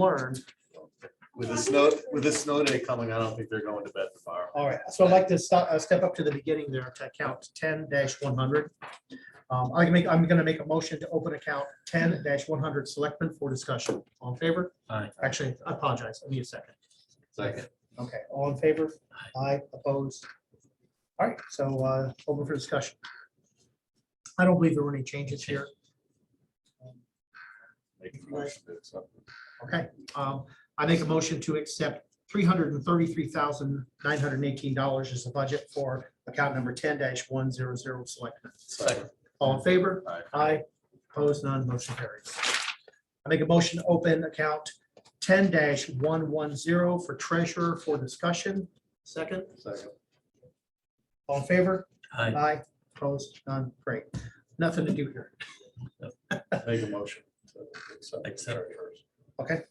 learn. With the snow, with the snow day coming, I don't think they're going to bed tomorrow. All right, so I'd like to stop, uh, step up to the beginning there to account ten one hundred. Um, I can make, I'm gonna make a motion to open account ten one hundred selectmen for discussion. All in favor? Aye. Actually, I apologize. I need a second. Second. Okay, all in favor? Aye, opposed? All right, so, uh, open for discussion. I don't believe there were any changes here. Make a motion to accept. Okay, um, I make a motion to accept three hundred and thirty-three thousand, nine hundred and eighteen dollars as the budget for account number ten one zero zero selectmen. Second. All in favor? Aye. Aye. Opposed, none, motion carries. I make a motion to open account ten one one zero for treasurer for discussion. Second, Second. all in favor? Aye. Aye. Opposed, none, great. Nothing to do here. Make a motion. to accept. Accept.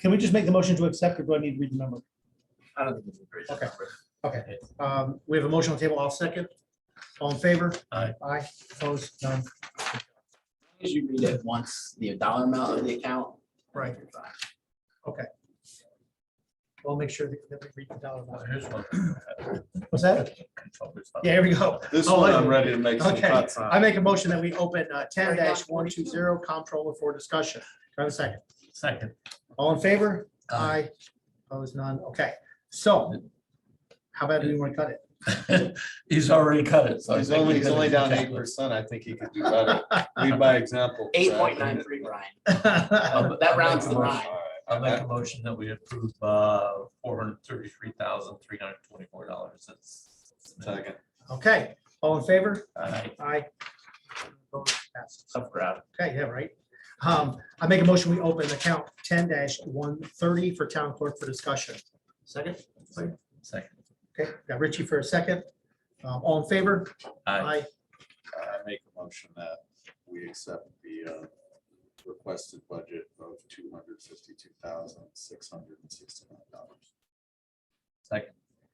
Can we just make the motion to accept or do I need to read the number? I don't think it's a great Okay. number. Um, we have a motion on the table. I'll second. All in favor? Aye. Aye, opposed, none, As you read it once, the dollar amount of the account. right. We'll make sure that that we read the dollar. amount. Oh, Here's one. Oh, What's that? Yeah, here we go. This Oh, one, I- I'm ready to make some Okay. cuts I on. make a motion that we open uh, ten one two zero comptroller for discussion. Do I have a second? Second. Um, All in favor? Aye. Aye. Opposed, none. Okay, so how about we want to cut it? He's already cut it. so I He's think only, we he's did only it. down eight percent. I think he could do better. Lead by example. Eight point nine three, Ryan. I'll- That rounds the I'll make a line. motion- I'll make a motion that we approve uh four hundred thirty-three thousand, three hundred twenty-four dollars. Second. Okay, all in favor? Aye. Aye. Opposed, passes. Tough crowd. Okay, yeah, right. Um, I make a motion, we open account ten one thirty for town clerk for discussion. Second, Second. okay, got Richie for a second. Um, all in favor? Aye. I make a motion that we accept the uh, requested budget of two hundred fifty-two thousand, six hundred and sixty-nine dollars. Second.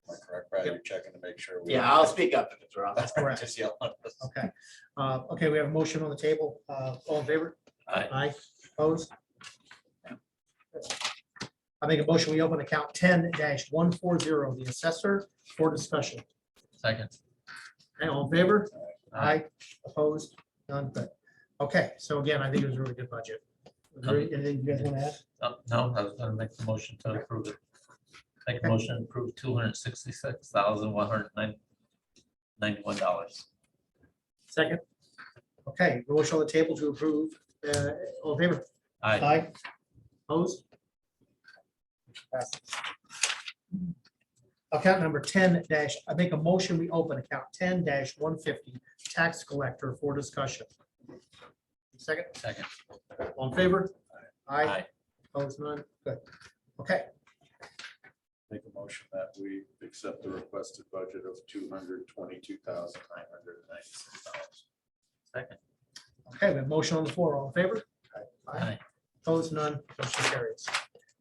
Am I correct, Brad? You're checking to make sure. we- Yeah, I'll speak up if it's wrong. That's correct. Just yell at us. Okay, uh, okay, we have a motion on the table. Uh, all in favor? Aye. Aye, opposed? I make a motion, we open account ten one four zero, the assessor for discussion. Second. Okay, all in favor? Aye. Aye, opposed, none, but, okay, so again, I think it was a really good budget. Is there Anything you guys want to add? Uh, No, I was gonna make the motion to approve it. Make a motion to approve two hundred sixty-six thousand, one hundred nine, ninety-one dollars. Second. Okay, motion on the table to approve, uh, all in favor? Aye. Opposed? Passes. Account number ten dash, I make a motion, we open account ten one fifty, tax collector for discussion. Second, Second. all in favor? Aye, Aye. opposed, none, good. Okay, Make a motion that we accept the requested budget of two hundred twenty-two thousand nine hundred and ninety-six dollars. Second. okay, we have motion on the floor, all in favor? Aye. Opposed, none, motion carries.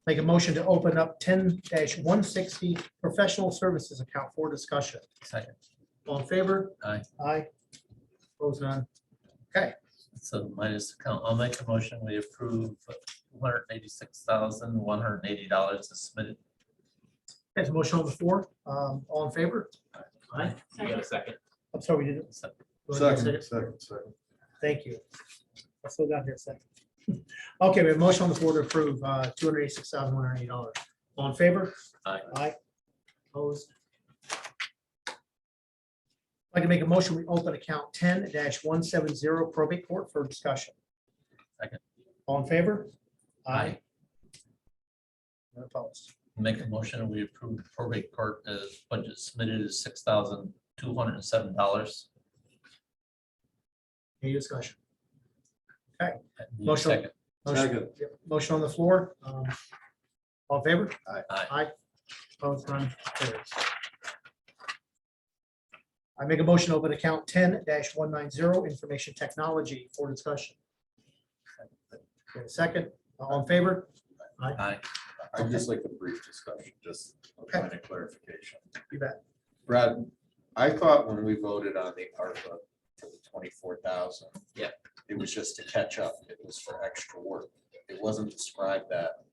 Make a motion to open up ten one sixty professional services account for discussion. Second. All in favor? Aye. Aye. Opposed, none. So minus account, I'll make a motion, we approve one hundred eighty-six thousand, one hundred eighty dollars is submitted. There's a motion on the floor. Um, all in favor? Aye. You got a second? I'm sorry, we didn't. So- go ahead and second. second, second. Thank you. I still got here a second. Okay, we have a motion on the floor to approve, uh, two hundred eighty-six thousand, one hundred eighty dollars. All in favor? Aye. Aye. Opposed? I'd like to make a motion, we open account ten one seven zero probate court for discussion. Second. All in favor? None Opposed. Make a motion, we approve probate court as budget submitted is six thousand, two hundred and seven dollars. Any discussion? Motion. Second. Motion- Second. Yep, Motion on the floor. um, All in favor? Aye. Aye. Opposed, none, carries. I make a motion to open account ten one nine zero, information technology for discussion. Okay, Second, all in favor? Aye. I'd just like a brief discussion, just a Okay. point of clarification. You bet. Brad, I thought when we voted on the ARPA for the twenty-four thousand. Yeah. It was just to catch up. It was for extra work. It wasn't described that